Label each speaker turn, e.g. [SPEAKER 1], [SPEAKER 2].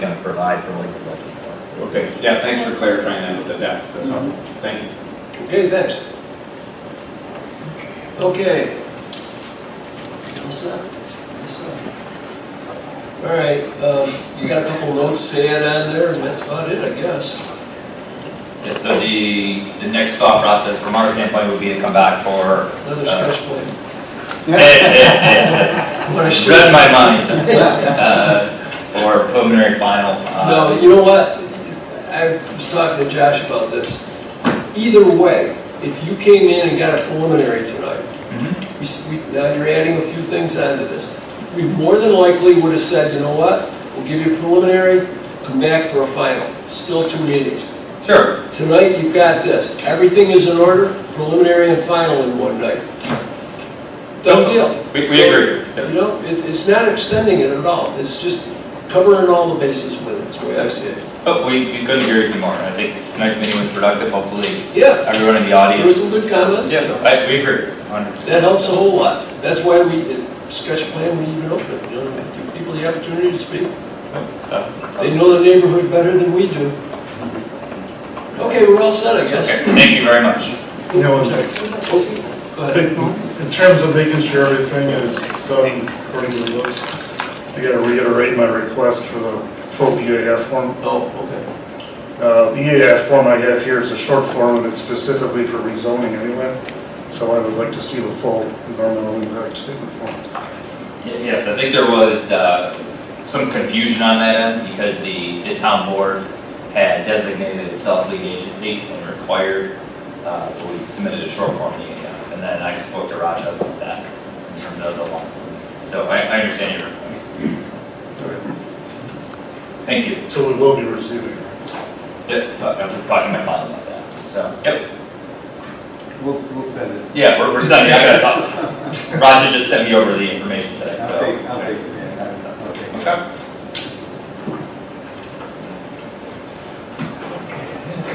[SPEAKER 1] provide for Lakewood Lucky Park.
[SPEAKER 2] Okay, yeah, thanks for clarifying that with the depth, that's all, thank you.
[SPEAKER 3] Okay, thanks. Okay. All set? All set. All right, um, you got a couple notes to add on there, and that's about it, I guess.
[SPEAKER 4] Yeah, so the, the next thought process from our standpoint would be to come back for,
[SPEAKER 3] Another stretch plan.
[SPEAKER 4] read
[SPEAKER 3] What I should-
[SPEAKER 4] my mind, uh, for preliminary final. uh,
[SPEAKER 3] No, you know what? I was talking to Josh about this. Either way, if you came in and got a preliminary tonight,
[SPEAKER 4] mhm,
[SPEAKER 3] we s- we- now you're adding a few things onto this. We more than likely would have said, you know what? We'll give you a preliminary, come back for a final. Still two meetings.
[SPEAKER 4] Sure,
[SPEAKER 3] Tonight, you've got this. Everything is in order, preliminary and final in one night. Done deal.
[SPEAKER 2] Oh, We, we agree.
[SPEAKER 3] You know, it, it's not extending it at all. It's just covering all the bases with it, is the way I see it.
[SPEAKER 4] but Oh, we, we couldn't agree with you more, I think tonight's meeting was productive, hopefully
[SPEAKER 3] Yeah,
[SPEAKER 4] everyone in the
[SPEAKER 3] there were
[SPEAKER 4] audience.
[SPEAKER 3] some good comments.
[SPEAKER 4] Yeah, I, we agree, hundred percent.
[SPEAKER 3] That helps a whole lot. That's why we, stretch plan, we even open it, you know, to give people the opportunity to speak. They know the neighborhood better than we do. Okay, we're all set, I
[SPEAKER 4] Okay,
[SPEAKER 3] guess.
[SPEAKER 4] thank you very much.
[SPEAKER 5] Now, in
[SPEAKER 3] Go ahead.
[SPEAKER 5] in terms of making sure everything is done according to the list, I gotta reiterate my request for the full EAF form.
[SPEAKER 3] Oh, okay.
[SPEAKER 5] Uh, The EAF form I have here is a short form, and it's specifically for rezoning anyway, so I would like to see the full environmental impact statement form.
[SPEAKER 4] Y- Yes, I think there was uh, some confusion on that end because the, the town board had designated itself lead agency and required, uh, we submitted a short form to EAF. And then I spoke to Raja about that in terms of the long. form. So I, I understand your request. Thank you.
[SPEAKER 5] So we will be receiving.
[SPEAKER 4] Yep, I was talking to my client about that. So, yep,
[SPEAKER 6] We'll, we'll send it.
[SPEAKER 4] yeah, we're, we're sending, I gotta talk. Raja just sent me over the information today,
[SPEAKER 6] I'll take,
[SPEAKER 4] so.
[SPEAKER 6] I'll take, it, yeah, I'll- I'll take. it.
[SPEAKER 4] Okay.